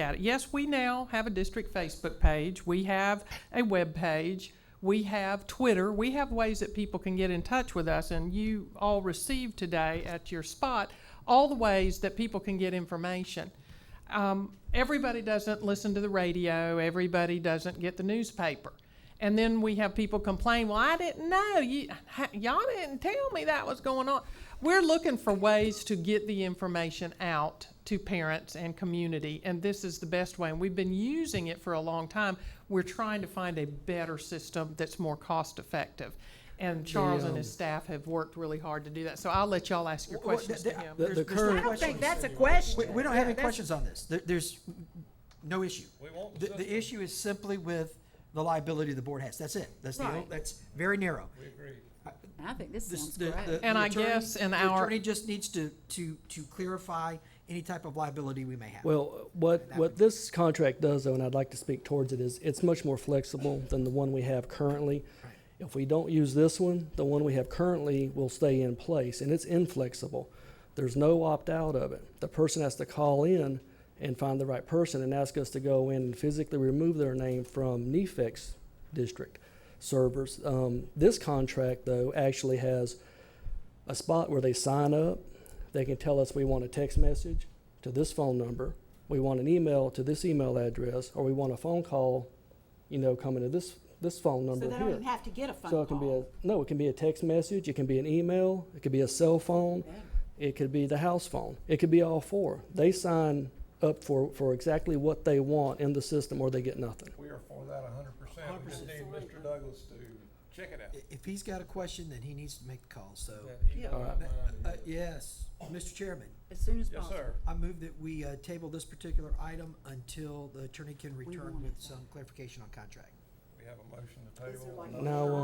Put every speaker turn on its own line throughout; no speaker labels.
at it. Yes, we now have a district Facebook page, we have a web page, we have Twitter, we have ways that people can get in touch with us, and you all received today at your spot all the ways that people can get information. Um, everybody doesn't listen to the radio, everybody doesn't get the newspaper. And then we have people complain, well, I didn't know. You, ha- y'all didn't tell me that was going on. We're looking for ways to get the information out to parents and community, and this is the best way. And we've been using it for a long time. We're trying to find a better system that's more cost effective. And Charles and his staff have worked really hard to do that. So I'll let y'all ask your
um, Well,
questions
the-
to him.
the-
There's-
the
there's no
current-
I
I don't
question.
think that's a
We,
question.
we don't have any
That's-
questions on this. There, there's no issue.
We want the
The, the issue is simply with the liability the board has. That's it. That's the,
Right.
that's very narrow.
I think this
This-
sounds
the- the-
great.
the
And I
attorney-
guess in
the
our-
Attorney just needs to, to, to clarify any type of liability we may have.
Well, what, what this contract does though, and I'd like to speak towards it, is it's much more flexible than the one we have currently. If we don't use this one, the one we have currently will stay in place and it's inflexible. There's no opt-out of it. The person has to call in and find the right person and ask us to go in and physically remove their name from NEFEX district servers. Um, this contract though actually has a spot where they sign up. They can tell us we want a text message to this phone number, we want an email to this email address, or we want a phone call, you know, coming to this this phone
So
number
they don't
here.
even have to get a
so
phone
it can be
call.
a no, it can be a text message, it can be an email, it could be a cell phone, it could be the house phone, it could be all four. They sign up for, for exactly what they want in the system or they get nothing.
We are for that a hundred percent. We just need Mr. Douglas to check it out.
I- If he's got a question, then he needs to make the call, so.
Yeah.
Uh, yes, Mr. Chairman,
As soon as
Yes,
possible.
sir.
I move that we, uh, table this particular item until the attorney can return
want
with some clarification on contract.
We have a motion to table.
Now,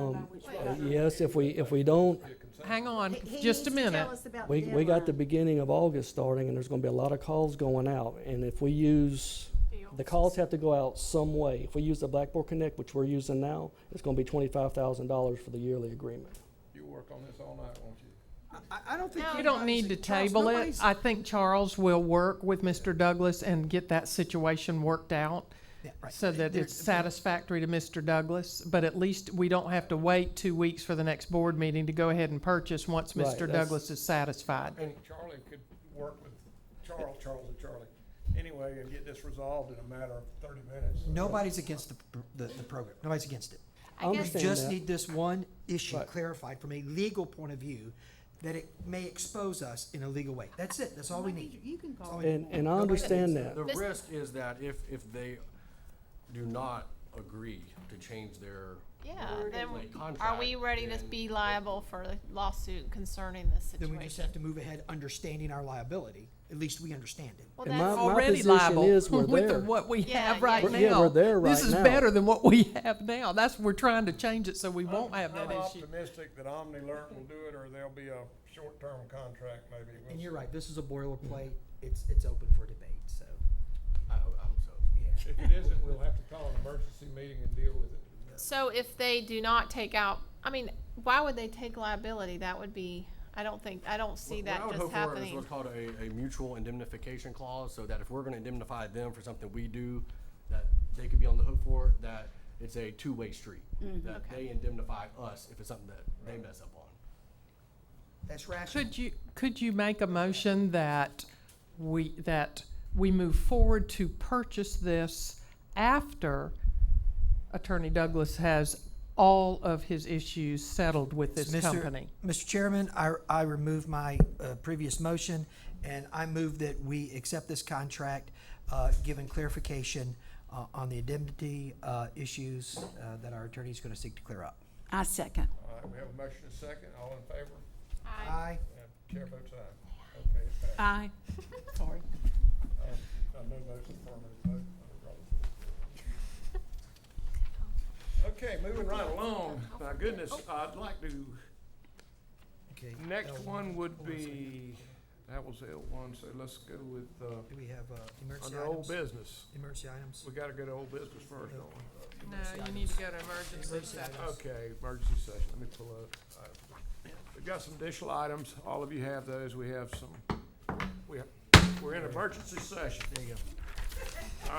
um, yes, if we if we don't
Get
uh,
consent.
Hang on,
He- he
just a
needs to tell
minute.
us about
We, we got the
deadline.
beginning of August starting, and there's gonna be a lot of calls going out, and if we use, the calls have to go out some way. If we use the Blackboard Connect, which we're using now, it's gonna be twenty-five thousand dollars for the yearly agreement.
You work on this all night, won't you?
I, I don't think.
You don't need to table it. I think Charles will work with Mr. Douglas and get that situation worked out so that it's satisfactory to Mr. Douglas. But at least we don't have to wait two weeks for the next board meeting to go ahead and purchase once
Right,
Mr.
that's-
Douglas is satisfied.
And Charlie could work with Charles, Charles and Charlie, anyway, and get this resolved in a matter of thirty minutes.
Nobody's against the, pr- the, the program. Nobody's against it.
I
We
understand
just
that.
need this one issue
Right.
clarified from a legal point of view, that it may expose us in a legal way. That's it. That's all Oh, we need.
You can call.
And, and I understand that.
The risk is that if, if they do not agree to change their,
Yeah, then
like
are
contract,
we ready to
then-
be liable for a lawsuit concerning this
Then we just have
situation?
to move ahead, understanding our liability. At least we understand it.
Well,
And
that's,
my
Already
position
liable
is we're
with the-
there.
what we
Yeah,
have right now.
yeah,
yeah. Yeah, we're there
This
right
is
now.
better than what we have now. That's, we're trying to change it so we won't
I'm-
have that
I'm
issue.
optimistic that OmniLert will do it, or there'll be a short-term contract maybe. We'll
And you're
see.
right, this is a boilerplate. It's, it's open for debate, so.
I, ho- I hope so.
Yeah.
If it isn't, we'll have to call an emergency meeting and deal with it.
so if they do not take out, I mean, why would they take liability? That would be, I don't think, I don't see
What I
that
would
just
hope for is
happening.
what's called a, a mutual indemnification clause, so that if we're gonna indemnify them for something we do, that they could be on the hook for, that it's a two-way street.
Mm,
That they indemnify us if it's something that they mess up on.
That's rational.
Could you, could you make a motion that we, that we move forward to purchase this after Attorney Douglas has all of his issues settled with this
Mr.
company?
Mr. Chairman, I, I remove my uh, previous motion, and I move that we accept this contract, uh, given clarification uh, on the indemnity uh, issues uh, that our attorney is going to seek to clear up.
I second.
All right, we have a motion and a second, all in favor?
Aye.
And chair votes aye. Okay, it passed.
Aye. Sorry.
Uh, no votes affirmative vote. Okay, moving right along. My goodness, I'd like to,
Okay.
next
L1.
one would be, that was L one, so let's go with, uh,
Do we have uh, emergency
under old
items?
business.
Emergency items?
We gotta go to old business first, don't we?
No, you need to go to emergency
Okay, emergency session, let me pull up. I- We've got some additional items, all of you have those, we have some, we have, we're in emergency session. There you go.